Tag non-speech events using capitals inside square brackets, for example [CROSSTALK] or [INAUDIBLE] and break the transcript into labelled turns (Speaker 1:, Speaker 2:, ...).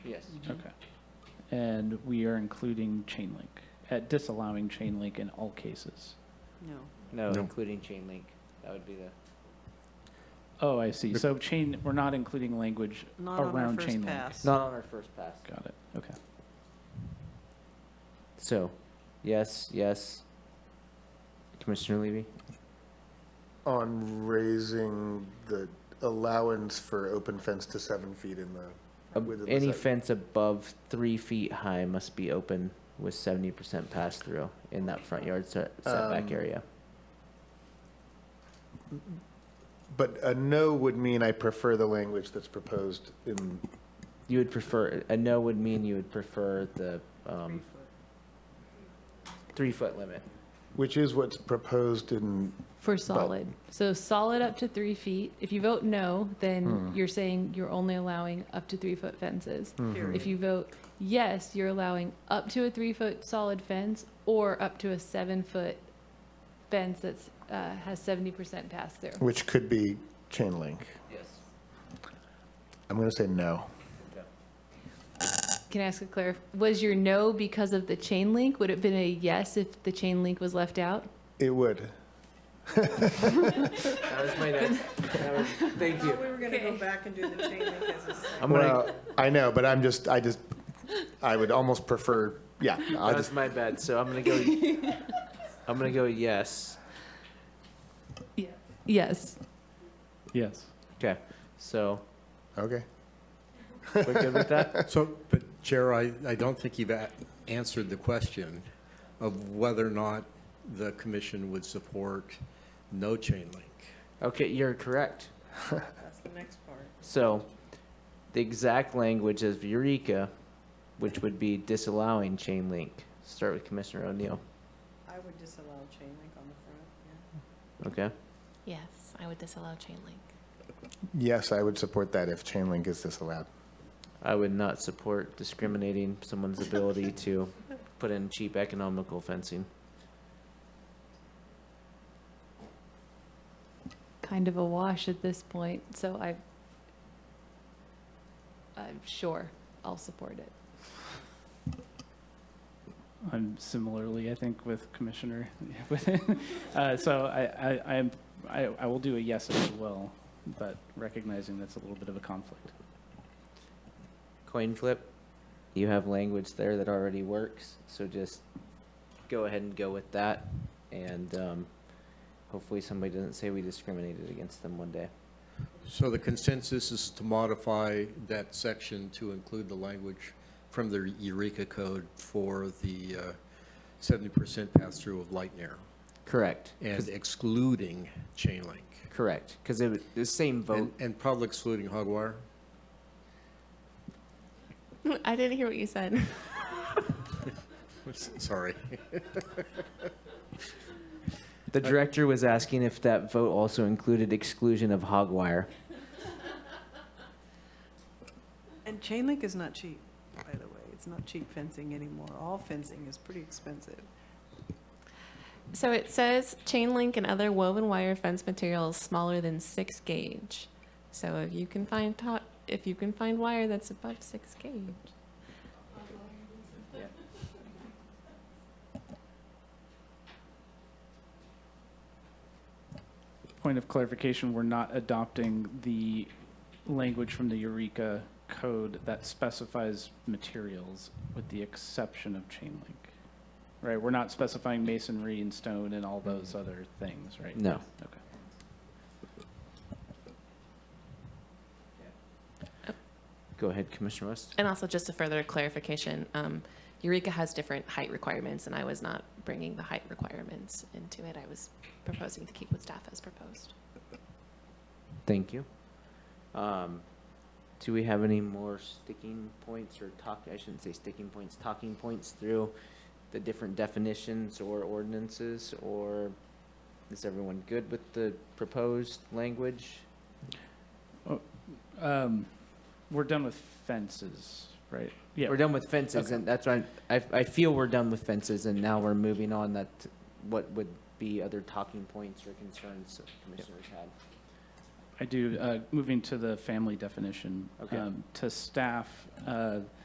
Speaker 1: Yes.
Speaker 2: Okay. And we are including chain link, at disallowing chain link in all cases.
Speaker 3: No.
Speaker 1: No,
Speaker 4: No.
Speaker 1: including chain link. That would be the,
Speaker 2: Oh, I see.
Speaker 4: The-
Speaker 2: So chain, we're not including language
Speaker 3: Not on our
Speaker 2: around
Speaker 3: first
Speaker 2: chain link.
Speaker 3: pass.
Speaker 1: not on our first pass.
Speaker 2: Got it. Okay.
Speaker 1: So, yes, yes. Commissioner Levy?
Speaker 4: on raising the allowance for open fence to seven feet in the,
Speaker 1: Ab-
Speaker 4: within the
Speaker 1: Any
Speaker 4: site.
Speaker 1: fence above three feet high must be open with seventy percent pass-through in that front yard set- setback
Speaker 4: Um,
Speaker 1: area.
Speaker 4: But a no would mean I prefer the language that's proposed in,
Speaker 1: You would prefer, a no would mean you would prefer the, um, three-foot limit.
Speaker 4: which is what's proposed in,
Speaker 5: For solid. So solid up to three feet. If you vote no, then
Speaker 4: Hmm.
Speaker 5: you're saying you're only allowing up to three foot fences.
Speaker 3: Period.
Speaker 5: If you vote yes, you're allowing up to a three foot solid fence or up to a seven foot fence that's, uh, has seventy percent pass through.
Speaker 4: which could be chain link.
Speaker 1: Yes.
Speaker 4: I'm going to say no.
Speaker 5: Can I ask a clarif, was your no because of the chain link? Would it have been a yes if the chain link was left out?
Speaker 4: It would.
Speaker 1: That was my next, that was, thank
Speaker 3: We
Speaker 1: you.
Speaker 3: were gonna go back and do [LAUGHS] the chain link as a second.
Speaker 1: I'm gonna,
Speaker 4: Well, I know, but I'm just, I just, I would almost prefer, yeah, I
Speaker 1: that
Speaker 4: just,
Speaker 1: was my bad, so I'm gonna go,
Speaker 4: [LAUGHS]
Speaker 1: I'm gonna go yes.
Speaker 5: Yes.
Speaker 2: Yes.
Speaker 1: Okay, so,
Speaker 4: okay.
Speaker 1: we're good with
Speaker 4: [LAUGHS]
Speaker 1: that?
Speaker 6: So, but Chair, I, I don't think you've a- answered the question of whether or not the commission would support no chain link.
Speaker 1: Okay, you're correct.
Speaker 3: That's the next part.
Speaker 1: So, the exact language is Eureka, which would be disallowing chain link. Start with Commissioner O'Neill,
Speaker 3: I would disallow chain link on the front, yeah.
Speaker 1: okay?
Speaker 5: Yes, I would disallow chain link.
Speaker 4: Yes, I would support that if chain link is disallowed.
Speaker 1: I would not support discriminating someone's ability to put in cheap economical fencing.
Speaker 5: Kind of a wash at this point, so I, I'm sure I'll support it.
Speaker 2: I'm similarly, I think, with Commissioner. [LAUGHS] Uh, So I, I, I'm- I, I will do a yes as well, but recognizing that's a little bit of a conflict.
Speaker 1: Coin flip, you have language there that already works, so just go ahead and go with that. And, um, hopefully somebody doesn't say we discriminated against them one day.
Speaker 6: So the consensus is to modify that section to include the language from the Eureka Code for the uh, 70% pass-through of light and air
Speaker 1: Correct.
Speaker 6: and excluding chain link.
Speaker 1: Correct, because it was the same vote.
Speaker 6: And, and probably excluding hog wire.
Speaker 7: [LAUGHS] I didn't hear what you said.
Speaker 6: Sorry.
Speaker 1: The director was asking if that vote also included exclusion of hog wire.
Speaker 3: And chain link is not cheap, by the way. It's not cheap fencing anymore. All fencing is pretty expensive.
Speaker 7: [LAUGHS] So it says chain link and other woven wire fence materials smaller than six gauge. So if you can find top, if you can find wire that's above six gauge,
Speaker 2: Point of clarification, we're not adopting the language from the Eureka code that specifies materials with the exception of chain link. Right, we're not specifying masonry and stone and all those other things, right?
Speaker 1: No.
Speaker 2: Okay.
Speaker 1: Go ahead, Commissioner West.
Speaker 7: and also just a further clarification, um, Eureka has different height requirements, and I was not bringing the height requirements into it. I was proposing to keep what staff has proposed.
Speaker 1: Thank you. Um, do we have any more sticking points or talk, I shouldn't say sticking points, talking points through the different definitions or ordinances? Or is everyone good with the proposed language?
Speaker 2: Um, We're done with fences, right? Yeah,
Speaker 1: We're done with fences
Speaker 2: Okay.
Speaker 1: and that's why I, I feel we're done with fences and now we're moving on that, what would be other talking points or concerns that commissioners had?
Speaker 2: I do, uh, moving to the family definition.
Speaker 1: Okay.
Speaker 2: um, To staff, uh,